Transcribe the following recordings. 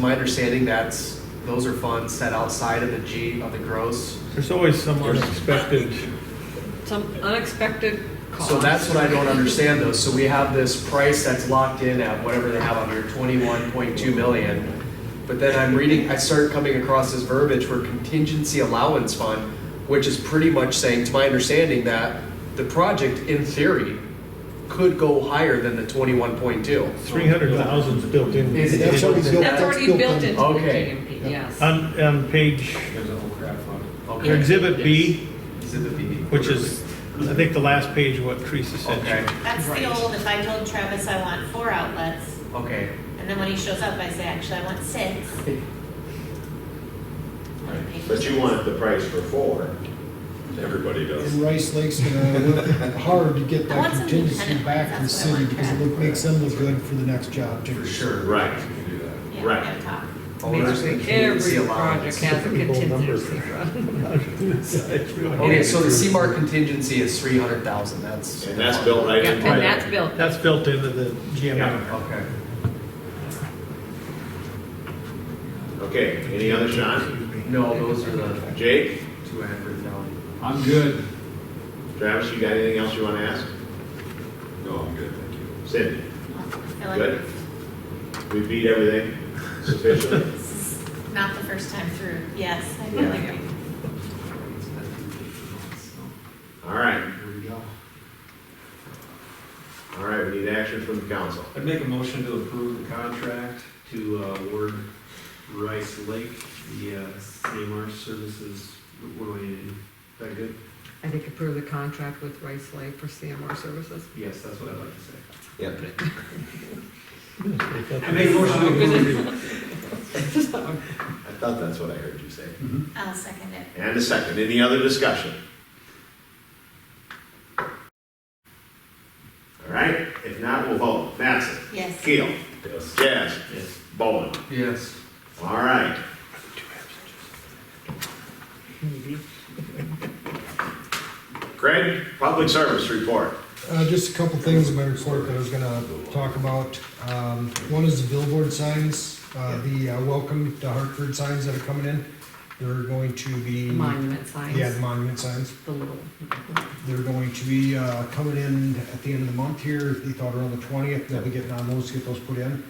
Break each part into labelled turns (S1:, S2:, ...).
S1: My understanding that's, those are funds set outside of the G, of the gross.
S2: There's always some unexpected,
S3: Some unexpected cost.
S1: So that's what I don't understand though. So we have this price that's locked in at whatever they have on here, twenty-one point two million. But then I'm reading, I start coming across this verbiage for contingency allowance fund, which is pretty much saying, to my understanding, that the project in theory could go higher than the twenty-one point two.
S2: 300,000's built in.
S1: Is it-
S4: That's already built.
S3: That's already built into the
S1: Okay.
S3: GMP, yes.
S2: On, on page,
S5: There's a whole crowd fund.
S1: Okay.
S2: exhibit B,
S1: Exhibit B.
S2: which is, I think, the last page of what Teresa
S1: Okay,
S2: said.
S6: That's
S3: Right.
S6: the old, if I told Travis I want four outlets,
S1: okay.
S6: and then when he shows up, I say, actually, I want six.
S7: But you want the price for four.
S8: Everybody does.
S4: And Rice Lake's gonna work hard to get
S6: I want
S4: that
S6: some
S4: contingency
S6: independent
S4: back to the
S6: ones, that's what I
S4: city
S6: want,
S4: because
S6: Brad.
S4: it makes them look good for the next job too.
S1: For sure.
S7: Right.
S5: You can do that.
S6: Yeah,
S7: Right.
S6: no talk.
S1: Owners and contingency
S3: Every project
S1: allowance.
S3: has a
S2: Typical numbers.
S3: contingency fund.
S1: Okay, so the CMAR contingency is three hundred thousand, that's.
S7: And that's built right
S3: Yeah,
S7: into
S3: And
S7: it.
S3: that's built.
S2: That's built into the GMI.
S1: Okay.
S7: Okay, any other, Sean?
S1: No, those are the
S7: Jake?
S1: two I have written down.
S5: I'm good.
S7: Travis, you got anything else you want to ask?
S5: No, I'm good, thank you.
S7: Cindy?
S6: I feel
S7: Good.
S6: like
S7: We beat everything sufficiently?
S6: this is not the first time through. Yes, I feel
S7: Yeah.
S6: like I
S7: All right,
S5: Here we go.
S7: all right, we need action from the council.
S5: I'd make a motion to approve the contract to uh, award Rice Lake the uh, CMR services. What do I need? Is that good?
S3: I think approve the contract with Rice Lake for CMR services.
S5: Yes, that's what I'd like to say.
S7: Yep.
S5: I make a motion to approve.
S7: I thought that's what I heard you say.
S6: I'll second it.
S7: And a second, any other discussion? All right, if not, we'll vote. Mattson?
S6: Yes.
S7: Keel? Yes. Jazz?
S5: Yes.
S7: Bowen?
S1: Yes.
S7: All right. Craig, public service report.
S4: Uh, just a couple things in my report that I was gonna talk about. Um, one is the billboard signs, uh, the uh, welcome to Hartford signs that are coming in. They're going to be.
S3: The Monument signs.
S4: Yeah, the monument signs.
S3: The little,
S4: They're going to be, uh, coming in at the end of the month here, they thought around the twentieth, they'll be getting on those, to get those put in.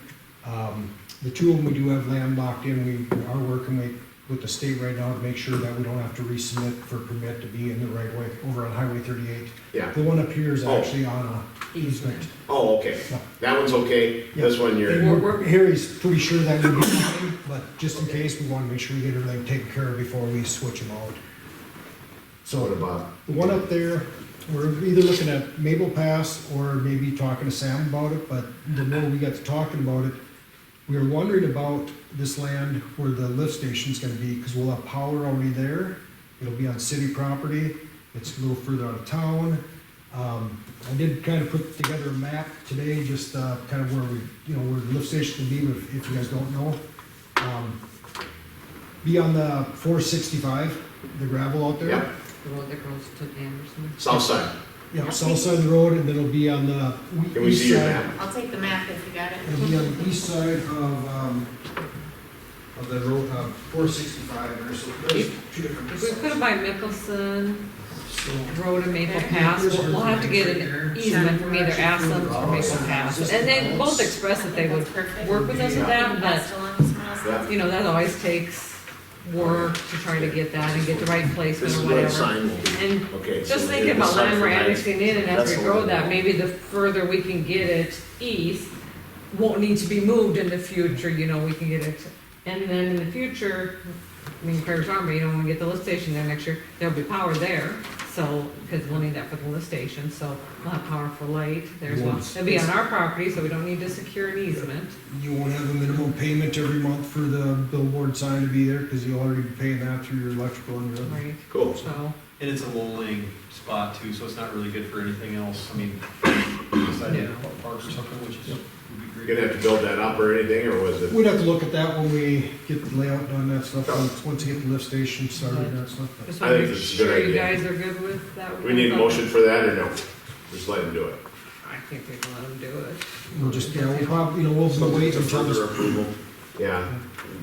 S4: Um, the two of them, we do have land locked in, we are working with, with the state right now to make sure that we don't have to resubmit for permit to be in the right way, over on Highway thirty-eight.
S7: Yeah.
S4: The one up here is
S7: Oh.
S4: actually on a easement.
S7: Oh, okay. That one's okay. This one you're,
S4: We're, we're, Harry's pretty sure that would be fine, but just in case, we wanna make sure we get everything taken care of before we switch them out. So.
S7: what about?
S4: The one up there, we're either looking at Maple Pass or maybe talking to Sam about it, but the more we got to talking about it, we were wondering about this land where the lift station's gonna be, because we'll have power already there. It'll be on city property, it's a little further out of town. Um, I did kind of put together a map today, just, uh, kind of where we, you know, where the lift station will be, if, if you guys don't know. Um, Be on the four sixty-five, the gravel out there.
S7: Yep.
S3: the road that goes to Anderson.
S7: South side.
S4: Yeah, south side of the road, and it'll be on the we-
S7: Can we
S4: east
S7: see your
S4: side.
S7: map?
S6: I'll take the map if you got
S4: It'll be
S6: it.
S4: on the east side of, um, of the road, uh, four sixty-five, and there's, there's two different.
S3: If we put it
S4: sides.
S3: by Mickelson,
S4: So,
S3: Road and Maple Pass, we'll we'll have to get an easement from either Assens or Maple Pass. And they both expressed that they would
S6: That's perfect.
S3: work with us with that, but
S6: Passed along to someone else.
S7: Yeah.
S3: you know, that always takes work to try to get that and get the right
S7: This
S3: placement
S7: is
S3: or
S7: where the
S3: whatever.
S7: sign will be.
S3: And
S7: Okay. so
S3: just
S7: we'll
S3: thinking
S7: do the
S3: about
S7: sign
S3: land we're
S7: for lights.
S3: annexing in, and as
S7: That's
S3: we
S7: the
S3: grow
S7: one.
S3: that, maybe the further we can get it east, won't need to be moved in the future, you know, we can get it. And then in the future, I mean, Prairie Farm, you know, when we get the lift station there next year, there'll be power there, so, because we'll need that for the lift station, so we'll have power for light there as well.
S4: Yes.
S3: It'll be on our property, so we don't need to secure an easement.
S4: You won't have a minimum payment every month for the billboard sign to be there, because you'll already be paying that through your electrical and your.
S3: Right,
S7: Cool.
S3: so,
S9: And it's a lowering spot too, so it's not really good for anything else. I mean, beside
S3: Yeah.
S9: a park or something, which is, would
S7: You're
S9: be
S7: gonna have
S9: great.
S7: to build that up or anything, or was it?
S4: We'd have to look at that when we get the layout done, that stuff, once, once you get the lift station started, and that stuff. but-
S3: just
S7: I
S3: want to
S7: think
S3: make
S7: this is a good
S3: sure you
S7: idea.
S3: guys are good with that.
S7: Do we need a motion for that or no? Just let him do it.
S3: I think we can let them do it.
S4: We'll just, yeah, we'll probably, you know, we'll wait until this
S7: approval. yeah.